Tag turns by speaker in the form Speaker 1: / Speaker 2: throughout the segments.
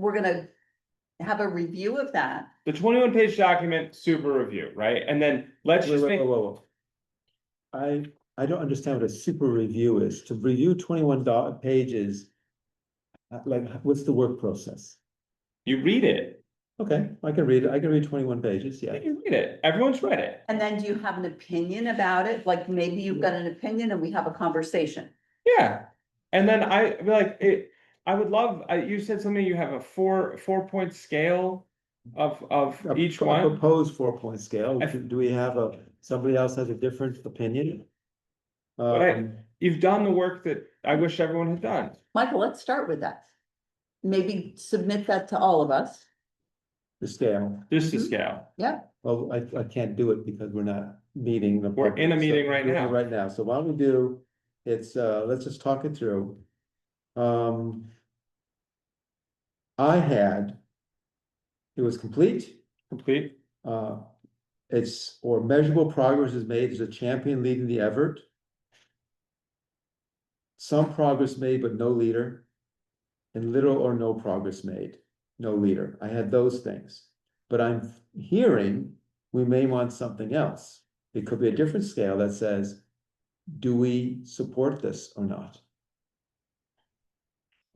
Speaker 1: we're gonna have a review of that.
Speaker 2: The twenty-one page document, super review, right? And then let's
Speaker 3: Wait,
Speaker 2: just
Speaker 3: wait, whoa,
Speaker 2: think,
Speaker 3: whoa, whoa. I, I don't understand what a super review is. To review twenty-one dot pages. uh, Like, what's the work process?
Speaker 2: you read it,
Speaker 3: Okay, I can read, it. I can read twenty-one pages, yeah.
Speaker 2: you read it, everyone's read it.
Speaker 1: And then do you have an opinion about it? Like maybe you've got an opinion and we have a conversation.
Speaker 2: Yeah, and then I I mean, like it. I would love. I, you said something. You have a four four point scale of of
Speaker 3: A-
Speaker 2: each
Speaker 3: a
Speaker 2: one.
Speaker 3: Proposed four-point scale.
Speaker 2: I-
Speaker 3: Do we have a, somebody else has a different opinion?
Speaker 2: Right.
Speaker 3: Um,
Speaker 2: You've done the work that I wish everyone had done.
Speaker 1: Michael, let's start with that. Maybe submit that to all of us.
Speaker 3: The scale.
Speaker 2: Just to
Speaker 1: Mhm.
Speaker 2: scale.
Speaker 3: Well, I, I can't do it because we're not meeting. the
Speaker 2: We're in a
Speaker 3: purpose, so
Speaker 2: meeting right
Speaker 3: we're in
Speaker 2: now.
Speaker 3: Right now, so why don't we do, it's, uh, let's just talk it through. Um. I had. It was complete,
Speaker 2: Complete.
Speaker 3: uh, it's, or measurable progress is made, there's a champion leading the effort. Some progress made, but no leader. And little or no progress made, no leader. I had those things. But I'm hearing we may want something else. It could be a different scale that says, do we support this or not?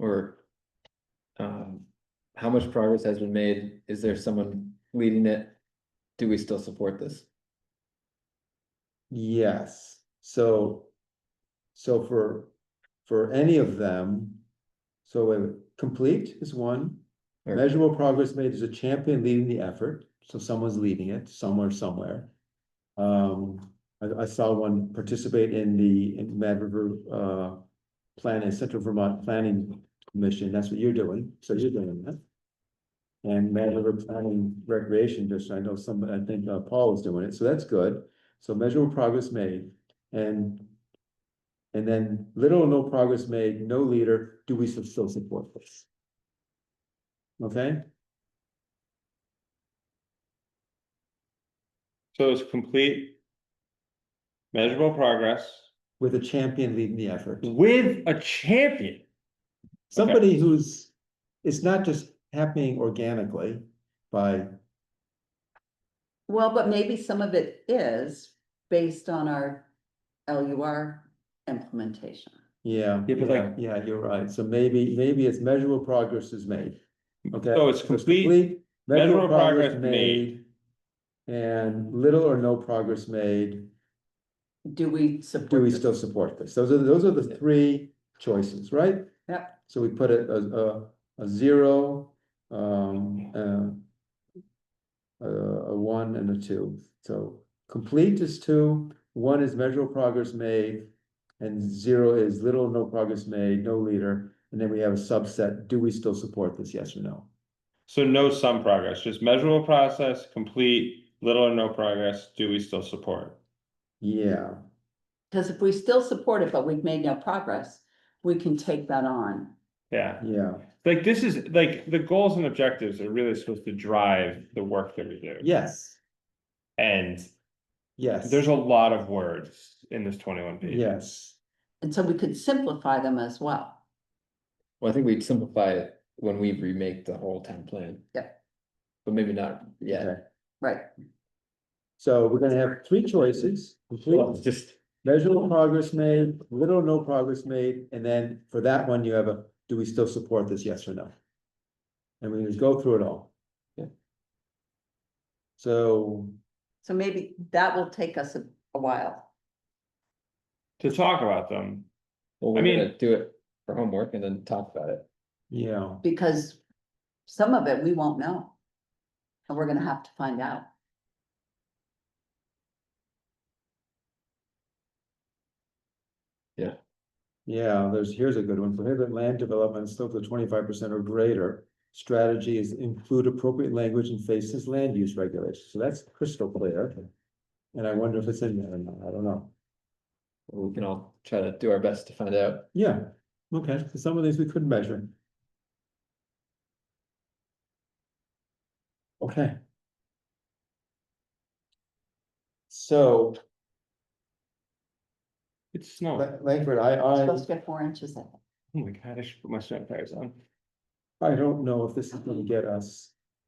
Speaker 4: Or um, how much progress has been made? Is there someone leading it? Do we still support this?
Speaker 3: Yes, so. So for, for any of them. So wait, wait, complete is one,
Speaker 4: Right.
Speaker 3: measurable progress made is a champion leading the effort, so someone's leading it somewhere, somewhere. Um, I, I saw one participate in the, in Mad River, uh. Planning, Central Vermont Planning Commission, that's what you're doing, so you're doing that. And Mad River Planning Recreation District, I know some, I think uh, Paul is doing it, so that's good. So measurable progress made and. And then little or no progress made, no leader, do we still support this? Okay,
Speaker 2: So it's complete. Measurable progress
Speaker 3: with a champion leading the
Speaker 2: Mm,
Speaker 3: effort,
Speaker 2: with a champion.
Speaker 3: somebody who's, it's not just happening organically by,
Speaker 1: Well, but maybe some of it is based on our LUR implementation.
Speaker 3: yeah.
Speaker 2: Yeah, but like-
Speaker 3: Yeah, you're right, so maybe, maybe it's measurable progress is made, okay?
Speaker 2: So it's complete. measurable progress made.
Speaker 3: And little or no progress made,
Speaker 1: Do we
Speaker 3: do
Speaker 1: support
Speaker 3: we
Speaker 1: this?
Speaker 3: still support this? Those are, those are the three choices, right?
Speaker 1: Yep.
Speaker 3: So we put a, a, a, a zero, um, uh. A, a one and a two, so complete is two, one is measurable progress made. And zero is little, no progress made, no leader, and then we have a subset, do we still support this, yes or no?
Speaker 2: So no some progress, just measurable process, complete, little or no progress. Do we still support?
Speaker 3: Yeah,
Speaker 1: Because if we still support it, but we've made no progress, we can take that on.
Speaker 2: Yeah.
Speaker 3: yeah,
Speaker 2: Like this is like the goals and objectives are really supposed to drive the work that we do.
Speaker 3: yes,
Speaker 2: And
Speaker 3: yes.
Speaker 2: There's a lot of words in this twenty-one page.
Speaker 3: Yes,
Speaker 1: And so we could simplify them as well.
Speaker 4: Well, I think we'd simplify it when we remake the whole town plan.
Speaker 1: Yeah.
Speaker 4: But maybe not yet.
Speaker 3: okay,
Speaker 1: Right.
Speaker 3: so we're gonna have three choices,
Speaker 4: Well,
Speaker 3: complete,
Speaker 4: it's just,
Speaker 3: Measurable progress made, little or no progress made, and then for that one, you have a, do we still support this, yes or no? And we just go through it all.
Speaker 4: Yeah.
Speaker 3: So,
Speaker 1: So maybe that will take us a a while.
Speaker 2: To talk about them,
Speaker 4: well,
Speaker 2: I
Speaker 4: we're
Speaker 2: mean-
Speaker 4: gonna do it for homework and then talk about it.
Speaker 3: yeah,
Speaker 1: because some of it we won't know. And we're gonna have to find out.
Speaker 3: yeah, there's, here's a good one, prohibit land development slope of twenty-five percent or greater. Strategy is include appropriate language and faces land use regulations, so that's crystal clear. And I wonder if it's in there or not, I don't know.
Speaker 4: We can all try to do our best to find out.
Speaker 3: Yeah, okay, so some of these we couldn't measure. Okay. So,
Speaker 2: it's snow.
Speaker 3: Lang- Langford, I,
Speaker 1: It's
Speaker 3: I,
Speaker 1: supposed to get four inches. I think.
Speaker 2: Oh my god, I should put my snow tires on.
Speaker 3: I don't know if this is gonna get us